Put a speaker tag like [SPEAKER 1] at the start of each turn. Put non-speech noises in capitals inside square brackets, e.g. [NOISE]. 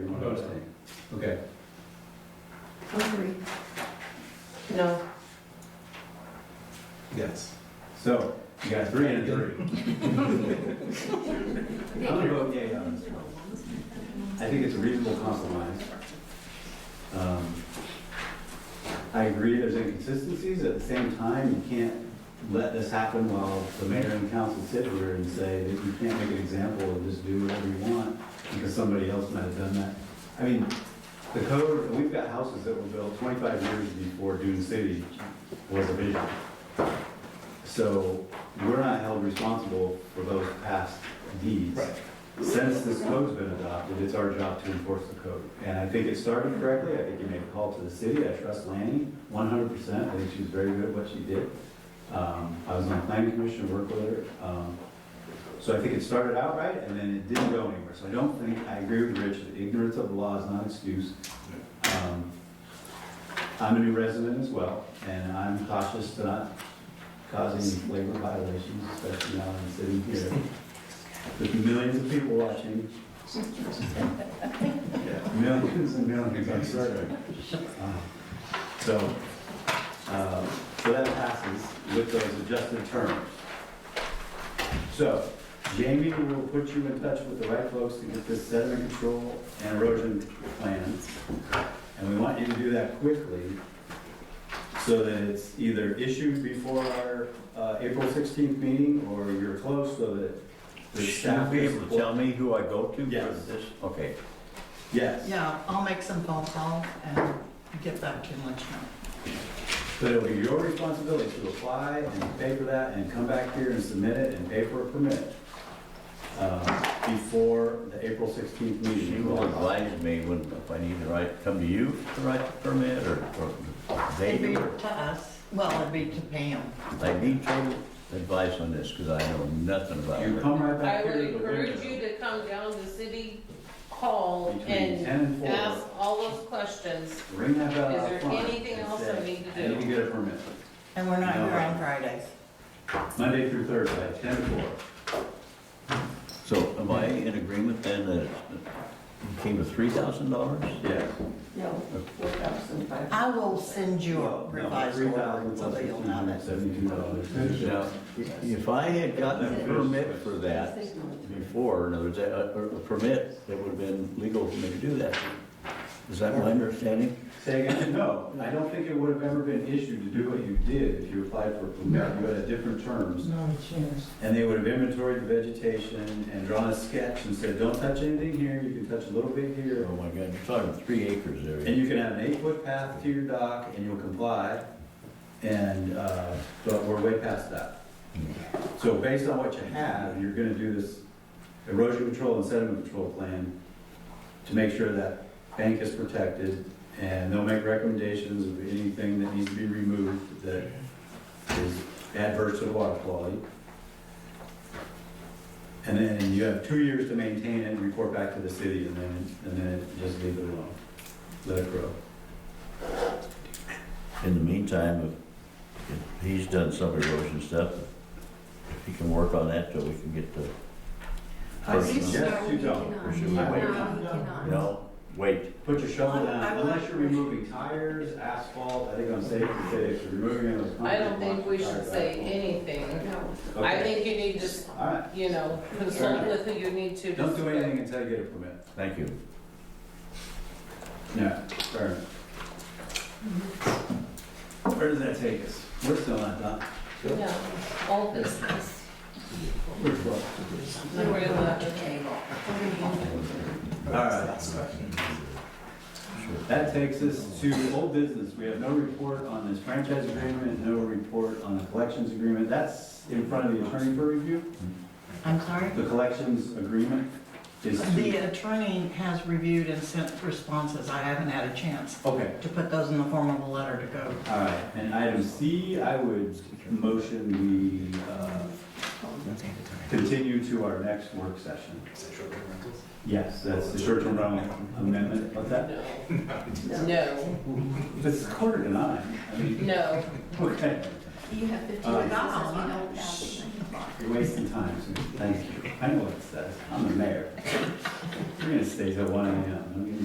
[SPEAKER 1] proposed thing. Okay,
[SPEAKER 2] Hungry.
[SPEAKER 3] No,
[SPEAKER 4] Yes.
[SPEAKER 1] so you got three and a three. I'm gonna vote yay on this one. I think it's a reasonable compromise. Um, I agree there's inconsistencies, at the same time, you can't let this happen while the mayor and council sit here and say that you can't make an example and just do whatever you want because somebody else might have done that. I mean, the code, we've got houses that were built 25 years before Dune City was a vision. So we're not held responsible for those past deeds.
[SPEAKER 4] Right.
[SPEAKER 1] Since this code's been adopted, it's our job to enforce the code. And I think it started correctly, I think you made a call to the city, I trust Lanny 100%, I think she was very good at what she did. Um, I was on the planning commission, worked with her. Um, So I think it started out right, and then it didn't go anywhere. So I don't think, I agree with Rich, that ignorance of the law is not an excuse. Um, I'm a new resident as well, and I'm cautious to not cause any labor violations, especially now I'm sitting here. With millions of people watching. Millions and millions, I'm sorry. Uh, So, uh, So that passes with those adjusted terms. So Jamie will put you in touch with the right folks to get this sediment control and erosion plan. And we want you to do that quickly so that it's either issued before our uh, April 16th meeting or you're close so that the
[SPEAKER 4] Should
[SPEAKER 1] staff.
[SPEAKER 4] be able to tell me who I go to for
[SPEAKER 1] Yes.
[SPEAKER 4] this? Okay.
[SPEAKER 1] Yes.
[SPEAKER 3] yeah, I'll make some phone calls and get back to you and let you know.
[SPEAKER 1] But it'll be your responsibility to apply and pay for that and come back here and submit it and pay for a permit uh, before the April 16th meeting.
[SPEAKER 4] She will advise me when, if I need to write, come to you to write the permit or, or they
[SPEAKER 3] It'd be
[SPEAKER 4] do. or-
[SPEAKER 3] to us, well, it'd be to Pam.
[SPEAKER 4] I need total advice on this because I know nothing about
[SPEAKER 1] You
[SPEAKER 4] it.
[SPEAKER 1] come right
[SPEAKER 5] I
[SPEAKER 1] back here.
[SPEAKER 5] would
[SPEAKER 1] to the
[SPEAKER 5] encourage you
[SPEAKER 1] window
[SPEAKER 5] to come down to City Hall
[SPEAKER 1] Between
[SPEAKER 5] and
[SPEAKER 1] 10 and
[SPEAKER 5] ask
[SPEAKER 1] 4.
[SPEAKER 5] all those questions.
[SPEAKER 1] Ring that bell
[SPEAKER 5] Is
[SPEAKER 1] out
[SPEAKER 5] there
[SPEAKER 1] front
[SPEAKER 5] anything
[SPEAKER 1] and
[SPEAKER 5] else
[SPEAKER 1] say,
[SPEAKER 5] I need to
[SPEAKER 1] I need to
[SPEAKER 5] do?"
[SPEAKER 1] get a permit.
[SPEAKER 3] And we're not
[SPEAKER 1] No.
[SPEAKER 3] here on Fridays.
[SPEAKER 1] Monday through Thursday, 10 to 4.
[SPEAKER 4] So am I in agreement then that it came to three thousand dollars?
[SPEAKER 1] Yes.
[SPEAKER 2] No, four thousand five.
[SPEAKER 3] I will send you
[SPEAKER 1] No,
[SPEAKER 3] a revised order, so that you'll know that.
[SPEAKER 1] $3,172.
[SPEAKER 4] Now, if I had gotten a permit for that before, in other words, a, a permit, it would have been legal for me to do that. Is that my understanding?
[SPEAKER 1] Say again, no, I don't think it would have ever been issued to do what you did if you applied for a permit, you had a different terms.
[SPEAKER 3] No chance.
[SPEAKER 1] And they would have inventoried the vegetation and drawn a sketch and said, don't touch anything here, you can touch a little bit here.
[SPEAKER 4] Oh my God, you're talking three acres
[SPEAKER 1] And
[SPEAKER 4] there.
[SPEAKER 1] you can have an eight-foot path to your dock and you'll comply. And, uh, but we're way past that. So based on what you have, you're gonna do this erosion control and sediment control plan to make sure that bank is protected, and they'll make recommendations of anything that needs to be removed that is adverse to the water quality. And then you have two years to maintain it and report back to the city, and then, and then just leave it alone, let it grow.
[SPEAKER 4] In the meantime, if- if he's done some erosion stuff, if he can work on that till we can get the, I think so.
[SPEAKER 1] Yes, you don't.
[SPEAKER 4] Or should we wait? you know, wait.
[SPEAKER 1] Put your shovel
[SPEAKER 3] I-
[SPEAKER 1] down,
[SPEAKER 3] I-
[SPEAKER 1] unless you're removing tires, asphalt, I think I'm safe to say if you're removing those.
[SPEAKER 5] I
[SPEAKER 1] concrete
[SPEAKER 5] don't think
[SPEAKER 1] blocks,
[SPEAKER 5] we
[SPEAKER 1] tires,
[SPEAKER 5] should say
[SPEAKER 1] asphalt.
[SPEAKER 5] anything.
[SPEAKER 2] No,
[SPEAKER 5] I
[SPEAKER 1] Okay.
[SPEAKER 5] think you need just,
[SPEAKER 1] All right,
[SPEAKER 5] you know, consult with who you need to.
[SPEAKER 1] don't do anything until you get a permit.
[SPEAKER 4] Thank you.
[SPEAKER 1] No, fair enough. Where does that take us? We're still not done.
[SPEAKER 5] No, all business.
[SPEAKER 1] We're close.
[SPEAKER 5] We're in the-
[SPEAKER 1] All right. That takes us to old business. We have no report on this franchise agreement, no report on the collections agreement. That's in front of the attorney for review.
[SPEAKER 3] I'm sorry?
[SPEAKER 1] The collections agreement is
[SPEAKER 3] The
[SPEAKER 1] to,
[SPEAKER 3] attorney has reviewed and sent responses. I haven't had a chance
[SPEAKER 1] okay,
[SPEAKER 3] to put those in the form of a letter to go.
[SPEAKER 1] all right. And item C, I would motion we uh, continue to our next work session. Yes, that's the short-term rental amendment. What's that?
[SPEAKER 5] No,
[SPEAKER 1] It's quarter to nine. I mean, [LAUGHS]
[SPEAKER 5] no,
[SPEAKER 1] okay.
[SPEAKER 2] You have fifteen
[SPEAKER 1] Uh,
[SPEAKER 2] minutes, you don't have.
[SPEAKER 1] You're wasting time, so thank you. I know what it says. I'm the mayor. We're gonna stay till one AM. I'm gonna-